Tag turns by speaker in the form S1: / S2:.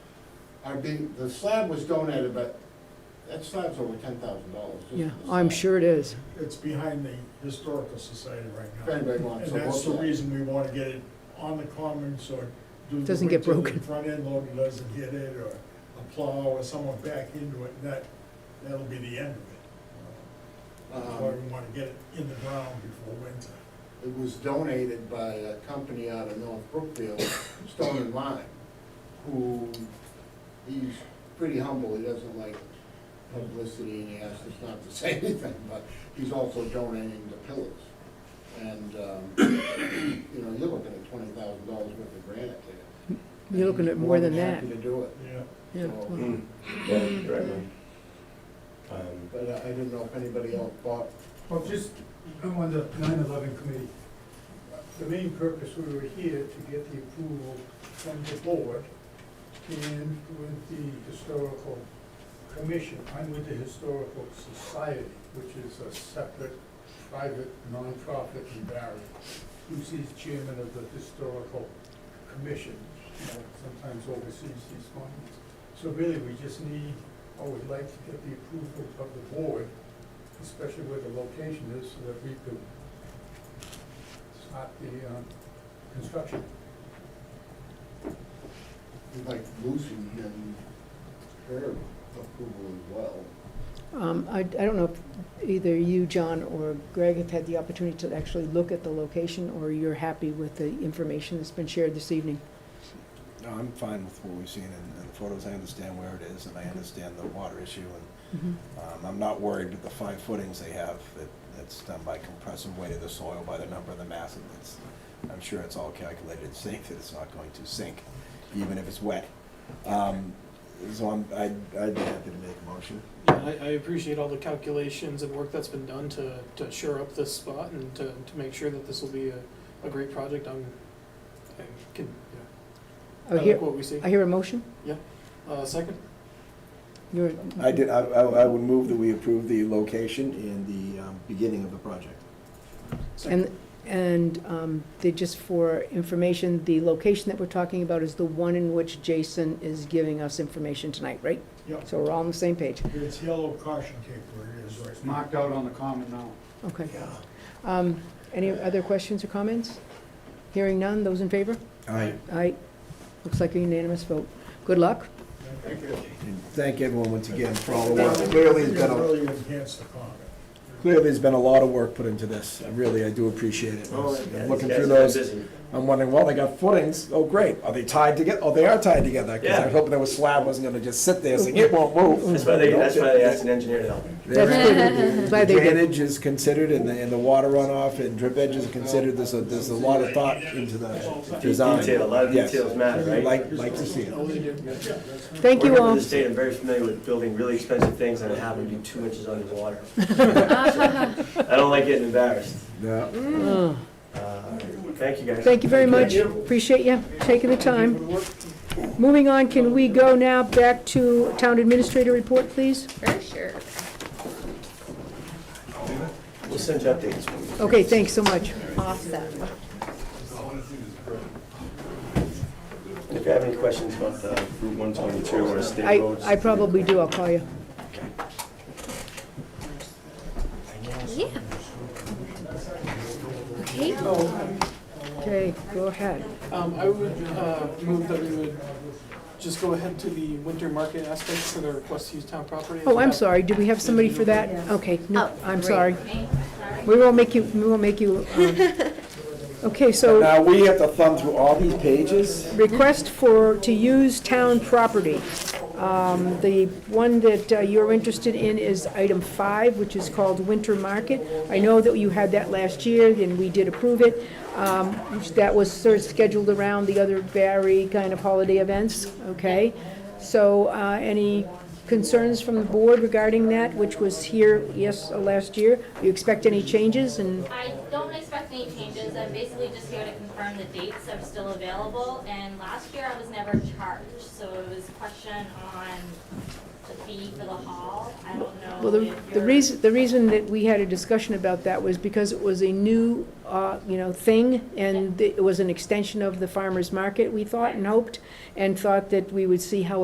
S1: are being, the slab was donated, but that slab's over ten thousand dollars.
S2: Yeah, I'm sure it is.
S3: It's behind the Historical Society right
S1: If
S3: now.
S1: anybody wants
S3: And
S1: to look
S3: that's the
S1: at it.
S3: reason we want to get it on the common, so it do-
S2: Doesn't get
S3: until the
S2: broken.
S3: Front end loader doesn't hit it, or a plow or someone back into it, and that, that'll be the end of it. That's why
S1: Um,
S3: we want to get it in the ground before winter.
S1: It was donated by a company out of North Brookfield, Stone and Lime, who, he's pretty humble, he doesn't like publicity, and he asked us not to say anything, but he's also donating the pillars. And, um, you know, you're looking at twenty thousand dollars worth of granite there.
S2: You're looking at more than that.
S1: Happy to do it.
S3: Yeah.
S2: Yeah, well,
S4: Mm. Yeah, you're right, man. Um,
S1: But uh, I I didn't know if anybody else bought,
S5: Well, just, I'm on the 9/11 committee. The main purpose, we were here to get the approval from the board and with the historical commission. I'm with the historical society, which is a separate, private, nonprofit in Barry. Lucy's chairman of the historical commission, you know, sometimes oversees these funds. So really, we just need, or would like to get the approval of the board especially where the location is, so that we could start the uh, construction.
S1: like Lucy and her approval as well.
S2: um, I, I don't know if either you, John, or Greg have had the opportunity to actually look at the location, or you're happy with the information that's been shared this evening.
S6: No, I'm fine with what we've seen in, in the photos. I understand where it is, and I understand the water issue, and,
S2: Mhm.
S6: um, I'm not worried with the five footings they have. It, it's done by compressive weight of the soil, by the number of the mass, and it's, I'm sure it's all calculated safe that it's not going to sink, even if it's wet. Um, so I'm, I'd, I'd be happy to make a motion.
S7: Yeah, I, I appreciate all the calculations and work that's been done to, to shore up this spot and to, to make sure that this will be a, a great project on, I can, yeah,
S2: I
S7: I like
S2: hear,
S7: what we see.
S2: Uh, I hear a motion?
S7: Uh, second,
S2: You're,
S6: I did, I, I I would move that we approve the location and the, um, beginning of the project.
S2: and, and um, they, just for information, the location that we're talking about is the one in which Jason is giving us information tonight, right?
S3: Yep.
S2: So we're all on the same page.
S3: It's yellow caution tape where it is right
S5: It's
S3: now.
S5: marked out on the common now.
S2: Okay. Um, Any other questions or comments? Hearing none, those in favor?
S6: Aye.
S2: Aye. Looks like a unanimous vote. Good luck.
S3: Thank you.
S6: And thank everyone once again for all the work.
S3: Well,
S6: Clearly, it's
S3: it
S6: been a
S3: Really enhance the comment.
S6: Clearly, there's been a lot of work put into this. I Really, I do appreciate it.
S4: Oh,
S6: I'm Looking through those, I'm wondering, well, they got footings, oh, great. Are they tied together? Oh, they are tied together, because I
S4: Yeah.
S6: was hoping that slab wasn't gonna just sit there saying, it won't move.
S4: That's why they, that's why they asked an engineer to help.
S2: That's good. Glad they did.
S6: Drainage is considered, and the, and the water runoff and drip edge is considered. There's a, there's a lot of thought into the design.
S4: Detail, a lot of
S6: Yes.
S4: details matter, right?
S6: Like, like to see it.
S2: Thank you
S4: Working for
S2: all.
S4: the state, I'm very familiar with building really expensive things and it happened to be two inches under the water. I don't like getting embarrassed.
S6: Yeah.
S2: Oh,
S4: Uh, Thank you guys.
S2: Thank you very much. Appreciate you taking the time. Moving on, can we go now back to town administrator report, please?
S8: For sure.
S4: We'll send you updates.
S2: Okay, thanks so much.
S8: Awesome.
S4: If you have any questions about the Route 122 or
S2: I,
S4: state roads.
S2: I probably do, I'll call you.
S8: Yeah. Okay.
S2: Okay, go ahead.
S7: um, I would, uh, move that we would just go ahead to the winter market aspects for the request to use town property.
S2: Oh, I'm sorry, do we have somebody for that? Okay, no,
S8: Oh,
S2: I'm
S8: great.
S2: sorry. We won't make you, we won't make you, um, okay, so.
S6: Now, we have to thumb through all these pages?
S2: request for, to use town property. Um, The one that uh, you're interested in is item five, which is called Winter Market. I know that you had that last year, and we did approve it. Um, That was sort of scheduled around the other Barry kind of holiday events, okay? So uh, any concerns from the board regarding that, which was here, yes, uh, last year? You expect any changes, and,
S9: I don't expect any changes, I'm basically just here to confirm the dates are still available, and last year I was never charged, so it was a question on the fee for the hall, I don't know
S2: well,
S9: if
S2: the
S9: you're.
S2: the reason, the reason that we had a discussion about that was because it was a new, uh, you know, thing, and it was an extension of the farmer's market, we thought and hoped, and thought that we would see how